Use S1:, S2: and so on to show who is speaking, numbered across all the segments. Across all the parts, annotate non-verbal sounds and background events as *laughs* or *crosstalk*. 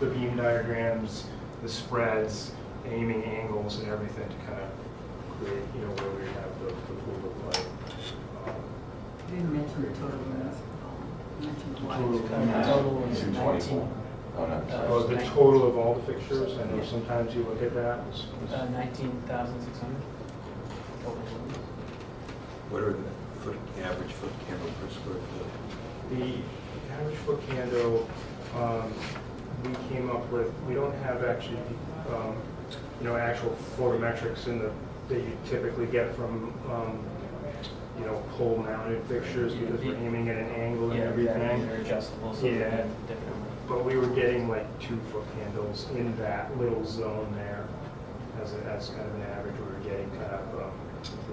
S1: the beam diagrams, the spreads, aiming angles and everything to kind of create, you know, where we have the, the pool look like. Um,
S2: You didn't mention the total mass. You mentioned the
S1: Total
S2: wattage.
S1: mass.
S3: Total is
S4: Two
S3: 19,
S4: twenty-four. Oh, no, sorry.
S1: Oh, the total of all the fixtures, I know sometimes you look at that, it's-
S3: uh, 19,600. total.
S5: What are the foot, the average foot candle per square foot?
S1: The average foot candle, um, we came up with, we don't have actually, um, you know, actual photometrics in the, that you typically get from, um, you know, pole mounted fixtures because we're aiming at an angle and
S3: Yeah, they're-
S1: everything.
S3: They're adjustable, so
S1: Yeah.
S3: they're different.
S1: But we were getting like two foot candles in that little zone there as, a- as kind of an average. We were getting kind of um,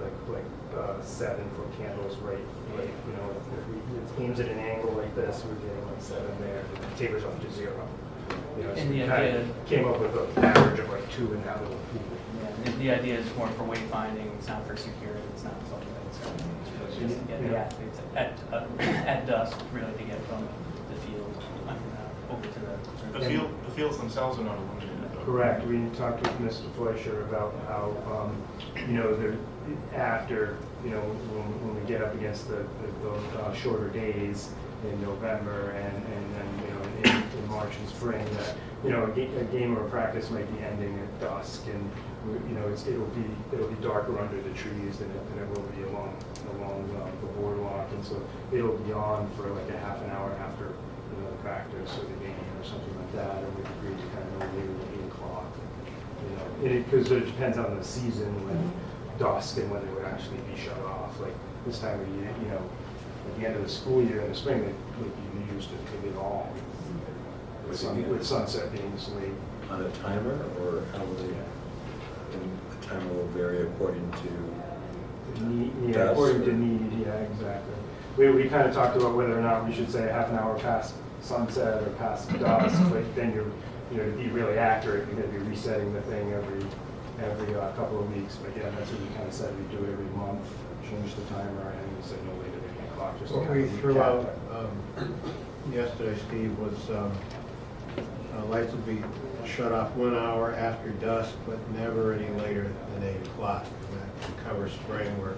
S1: like, like uh, seven foot candles right, right, you know, if we- if it aims at an angle like this, we're getting like seven there. It Tapers off to zero. You know, so
S3: And
S1: we
S3: the
S1: kind
S3: idea-
S1: of Came up with an average of like two in that little pool.
S3: Yeah, the, the idea is more for wayfinding, it's not for security, it's not something that's going to, it's just to get the
S1: Yeah.
S3: athletes at, uh, at dusk, really, to get from the field, I mean, uh, over to the.
S6: The field, the fields themselves are not illuminated though.
S1: Correct. We talked with Mr. Fleischer about how, um, you know, the, after, you know, when, when we get up against the, the- the uh, shorter days in November and, and then, you know, in, in March and spring, that, you know, a ga- a game or a practice might be ending at dusk and, we- you know, it's, it'll be, it'll be darker under the trees than it, than it will be along, along uh, the boardwalk. And so it'll be on for like a half an hour after, you know, the practice or the game or something like that, and we agreed to kind of leave at eight o'clock. You know, and it, because it depends on the season, when dusk and when they would actually be shut off, like this time of year, you know, at the end of the school year in the spring, they would be used to could it all. With sun- with sunset being this late.
S5: On a timer, or how will they, and the timer will vary according to,
S1: Ne- Yeah, according to need, yeah, exactly. We, we kind of talked about whether or not we should say half an hour past sunset or past dusk, but then you're, you know, to be really accurate, you're gonna be resetting the thing every, every uh, couple of weeks. But yeah, that's what we kind of said, we do it every month, change the timer, and we said no later than eight o'clock, just to
S7: What
S1: kind
S7: we
S1: of
S7: threw
S1: recap
S7: out
S1: that.
S7: um, yesterday, Steve, was um, uh, lights will be shut off one hour after dusk, but never any later than eight o'clock. And That covers spring where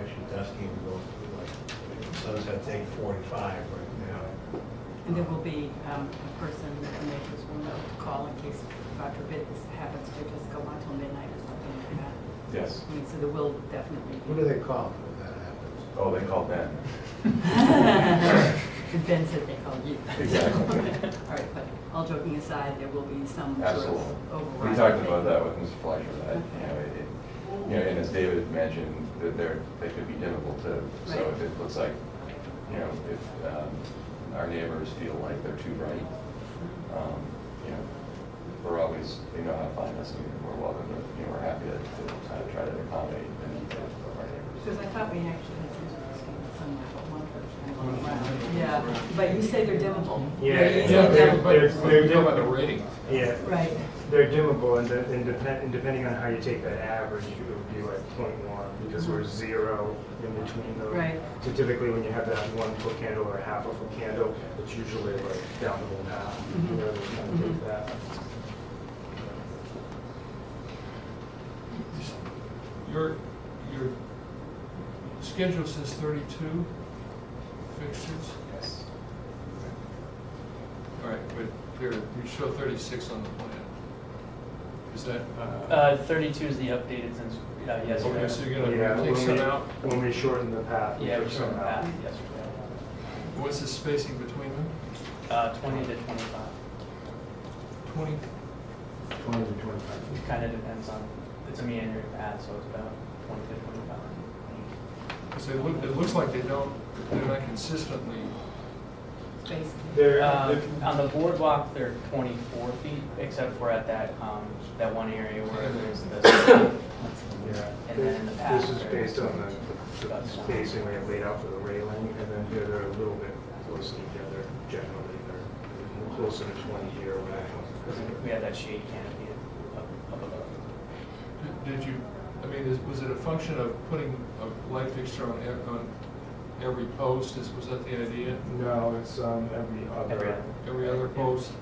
S7: actually dusk even goes to like sunset's eight forty-five right now.
S2: And there will be um, a person that the neighbors will know to call in case, God forbid, this happens to just go on till midnight or something like that.
S4: Yes.
S2: I mean, so there will definitely be.
S7: Who
S2: *laughs*
S7: do they call if that happens?
S4: Oh, they call Ben.
S2: And Ben said they called you.
S4: Exactly.
S2: *laughs* All right, but all joking aside, there will be some sort
S4: Absolutely.
S2: of override.
S4: We talked about
S2: thing.
S4: that with Mr. Fleischer, that, you know, it, you know, and as David mentioned, that they're, they could be difficult to, so
S2: Right.
S4: if it looks like, you know, if, um, our neighbors feel like they're too bright, um, you know, we're always, they know how to find us, and we're welcome to, you know, we're happy to, to kind of try to accommodate the needs of our neighbors.
S2: Because I thought we actually had some sort of scheme somewhere, but one person. I don't know. Yeah, but you say they're dimmable.
S1: Yeah,
S2: They're
S1: yeah,
S2: easily
S1: they're-
S2: dimmable.
S1: they're- they're
S6: Talking about the rating.
S1: Yeah,
S2: Right,
S1: they're dimmable, and de- and depend, and depending on how you take that average, it would be like point one, because we're zero in between those.
S2: Right.
S1: So typically, when you have that one foot candle or half a foot candle, it's usually like down the half, you know, they kind of
S2: Mhm.
S1: take that.
S8: Your, your schedule says thirty-two fixtures?
S1: Yes.
S8: All right, but here, you show thirty-six on the plan. Is that, uh,
S3: *laughs* Uh, thirty-two is the updated since, uh,
S8: okay, so
S3: yesterday.
S8: you're
S1: Yeah,
S8: gonna
S1: when
S8: take some
S1: we-
S8: out?
S1: When we shorten the path. we
S3: Yeah, we
S1: took
S3: showed
S1: some out.
S3: that yesterday.
S8: What's the spacing between them?
S3: Uh, twenty to twenty-five,
S8: Twenty,
S1: Twenty to twenty-five feet.
S3: it kind of depends on, it's a meandering path, so it's about twenty to twenty-five.
S8: because they look, it looks like they don't, they're not consistently,
S2: basically.
S1: There,
S3: Um,
S1: there-
S3: On the boardwalk, they're 24 feet, except for at that, um, that one area where there's the,
S1: Yeah,
S3: And then in the
S1: this
S3: past,
S1: is
S3: there-
S1: based on the- the spacing we have laid out for the railing, and then here they're a little bit closer together generally, they're closer to 20 here. when I
S3: because we have that shade canopy up up above.
S8: did- did you, I mean, is- was it a function of putting a light fixture on, ev- on every post? Is Was that the idea?
S1: No, it's um, every
S3: Every
S1: other,
S3: other.
S8: Every other post?